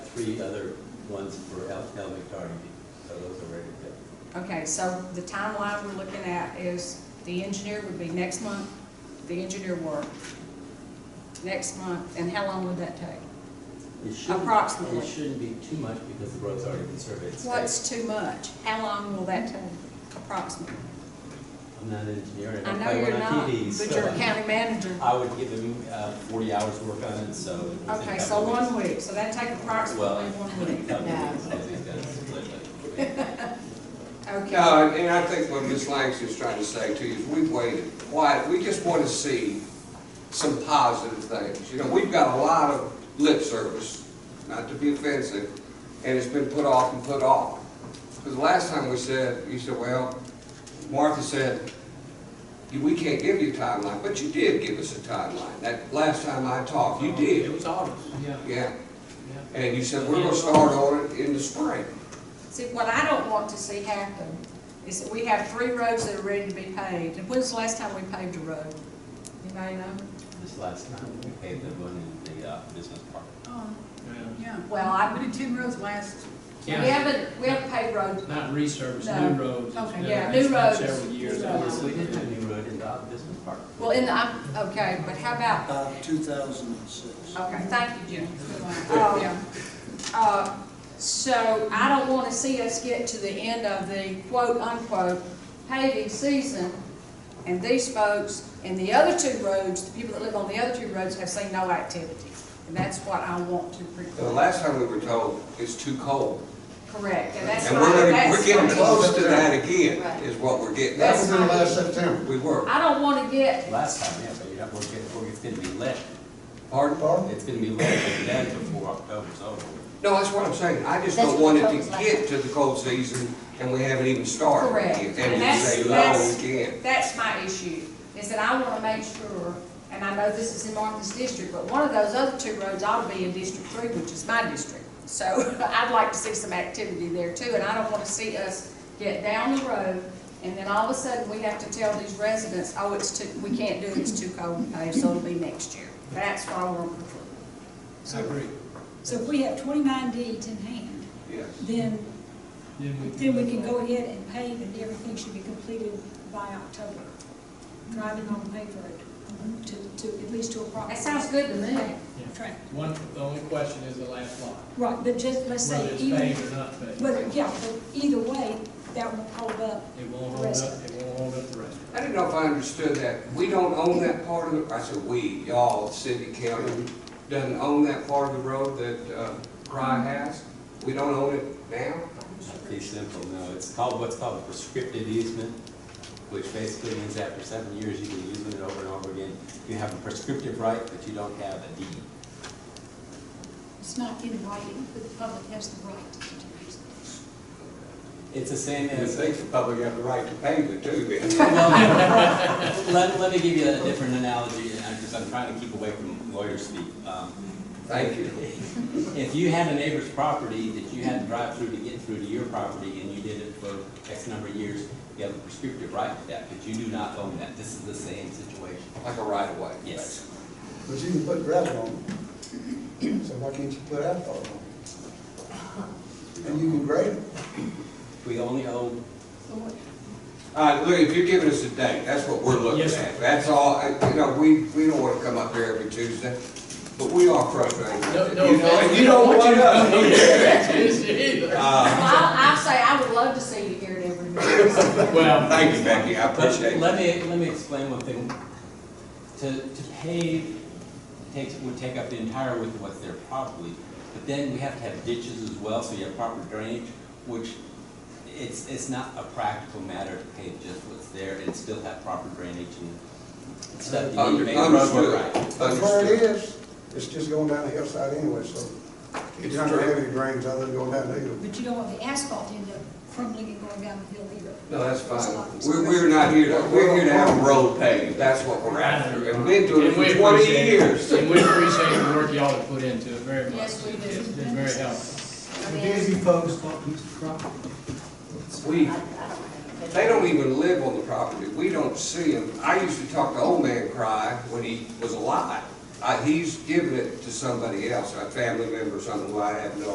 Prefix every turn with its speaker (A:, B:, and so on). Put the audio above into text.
A: three other ones for el- elderly tardy people, so those are ready to go.
B: Okay, so the timeline we're looking at is the engineer would be next month, the engineer work, next month, and how long would that take?
A: It shouldn't-
B: Approximately.
A: It shouldn't be too much because the road's already been surveyed. so
B: What's too much? How long will that take approximately?
A: I'm not an engineer, I
B: I
A: don't
B: know
A: play
B: you're
A: one
B: not,
A: on TVs.
B: but
A: so
B: you're a
A: I-
B: county manager.
A: I would give them uh, forty hours to work on it, so. it was a
B: Okay,
A: couple
B: so
A: of weeks.
B: one week, so that'd take approximately one week.
A: Well,
C: No.
A: I think that's completely-
B: Okay,
D: No, and I think what Ms. Langston's trying to say to you is we've waited quite, we just want to see some positive things. You know, we've got a lot of lip service, not to be offensive, and it's been put off and put off. Because the last time we said, you said, well, Martha said, we can't give you a timeline, but you did give us a timeline. That last time I talked, you did.
E: It was August. Yeah.
D: Yeah. And you said, we're gonna start on it in the spring.
B: see, what I don't want to see happen is that we have three roads that are ready to be paved, and when's the last time we paved a road? Anybody know?
A: This last time, we paid the one in the uh, business park.
C: Oh, yeah.
B: Well, I-
C: We did ten roads last,
B: We
E: Yeah.
B: haven't, we haven't paved roads,
E: Not resurface,
B: No.
E: new roads.
C: Okay.
E: It's
B: Yeah,
E: been-
B: new
E: it's been
B: roads.
E: Several years.
B: New
E: I
B: roads.
E: was-
A: We did do a new road in the business park.
B: well, in the, I'm, okay, but how about,
F: Uh, 2006.
B: okay, thank you, Jim.
C: good
B: Oh.
C: one. yeah.
B: Uh, So I don't want to see us get to the end of the quote-unquote paving season, and these folks, and the other two roads, the people that live on the other two roads have seen no activity. And that's what I want to
D: The
B: prevent.
D: last time we were told, it's too cold.
B: Correct, and that's
D: And
B: what,
D: we're, gonna-
B: that's.
D: we're getting
B: what-
D: close to that
C: Right.
D: again, is what we're getting.
F: That
D: That's
F: was
B: That's
F: in
B: not-
F: last September.
D: we were.
B: I don't want to get,
A: Last time, yeah, but you're not, we're getting, we're- it's gonna be lit.
D: Pardon?
F: Pardon?
A: It's gonna be lit and dead before October's over.
D: No, that's what I'm saying. I just
C: That's
D: don't
C: what
D: want
C: we
D: it
C: told us
D: to
C: last
D: get to the cold season and we haven't even started.
B: Correct.
D: yet.
B: And
D: And we
B: that's-
D: say,
B: that's-
D: no, we can't.
B: that's my issue, is that I want to make sure, and I know this is in Martha's district, but one of those other two roads ought to be in District Three, which is my district. So I'd like to see some activity there too, and I don't want to see us get down the road, and then all of a sudden, we have to tell these residents, oh, it's too, we can't do it, it's too cold to pave, so it'll be next year. That's what I want to preclude.
E: I agree.
G: So if we have twenty-nine deeds in hand,
D: Yes.
G: then,
E: Then
G: then we can go ahead and pave and everything should be completed by October. Driving on paper to, to, at least to approximately.
B: That sounds good to me.
G: Track.
E: One, the only question is the last lot.
G: Right, but just, let's
E: Whether
G: say,
E: it's
G: even,
E: paved or not paved.
G: but, yeah, but either way, that won't hold up.
E: It won't
G: the
E: hold
G: rest
E: up, it won't hold up the rest.
D: I didn't know if I understood that. We don't own that part of the, I said, we, y'all, city, county, doesn't own that part of the road that, uh,
B: Mm-hmm.
D: Cry has. We don't own it now.
A: It's pretty simple, no, it's called, what's called a prescriptive easement, which basically means after seven years, you can use it over and over again. You have a prescriptive right, but you don't have a deed.
C: It's not in writing, but the public has the right to use it.
A: It's the same
D: And
A: as.
D: they probably got the right to pave it too, then.
A: Well, Let, let me give you a different analogy, and I'm just, I'm trying to keep away from lawyer speak. Um,
D: Thank you.
A: If you had a neighbor's property that you had to drive through to get through to your property, and you did it for X number of years, you have a prescriptive right to that, but you do not own that. This is the same situation.
D: Like a right of way.
A: Yes.
F: But you can put gravel on it. So why can't you put asphalt on it? And you can grade it.
A: We only own,
D: All right, look, if you're giving us a date, that's what we're looking
E: Yes, sir.
D: at. That's all, I- you know, we, we don't want to come up here every Tuesday, but we are frustrated.
E: No,
D: You
E: no,
D: know, and you don't want us either. Uh,
B: Well, I, I say, I would love to see you here at every meeting.
E: Well,
D: Thank you, Becky, I
A: but
D: appreciate it.
A: let me, let me explain one thing. To, to pave takes, would take up the entire width of what's there probably, but then we have to have ditches as well, so you have proper drainage, which it's, it's not a practical matter to pave just what's there and still have proper drainage and stuff. You need to
D: Under-
A: make the road work
D: Understood,
A: right.
F: That's where it
D: understood.
F: is. It's just going down the hillside anyway, so. It's not gonna have any drains other than going down the hill.
G: But you don't want the asphalt to end up crumbling and going down the hill either.
D: No, that's fine.
G: It's like-
D: We're, we're not here to, we're here to have a road paved, that's what we're after. And we've been doing it
E: And we
D: for twenty
E: appreciate-
D: years.
E: And we appreciate the work y'all have put into it very much.
B: Yes, we do.
E: It's been very helpful.
B: I mean,
D: We, they don't even live on the property, we don't see them. I used to talk to old man Cry when he was alive. I, he's given it to somebody else, a family member or something, who I have no